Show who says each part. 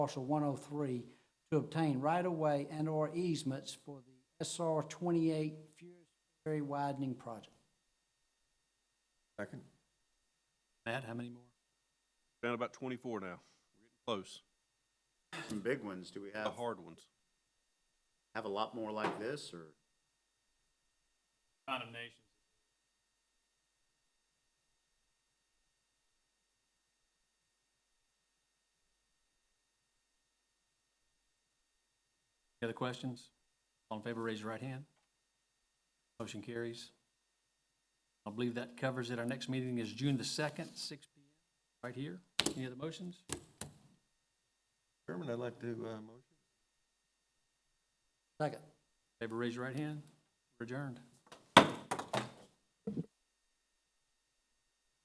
Speaker 1: parcel 103 to obtain right-of-way and/or easements for the SR 28 Furious Ferry widening project.
Speaker 2: Second.
Speaker 3: Matt, how many more?
Speaker 4: Down about twenty-four now. We're getting close.
Speaker 2: Some big ones. Do we
Speaker 4: The
Speaker 2: have,
Speaker 4: hard ones.
Speaker 2: have a lot more like this or?
Speaker 5: condemnations.
Speaker 3: Any other questions? All in favor, raise your right hand. Motion carries. I believe that covers it. Our next meeting is June the 2nd, six PM, right here. Any other motions?
Speaker 6: Chairman, I'd like to, uh, motion.
Speaker 1: Second.
Speaker 3: Favor, raise your right hand. We're adjourned.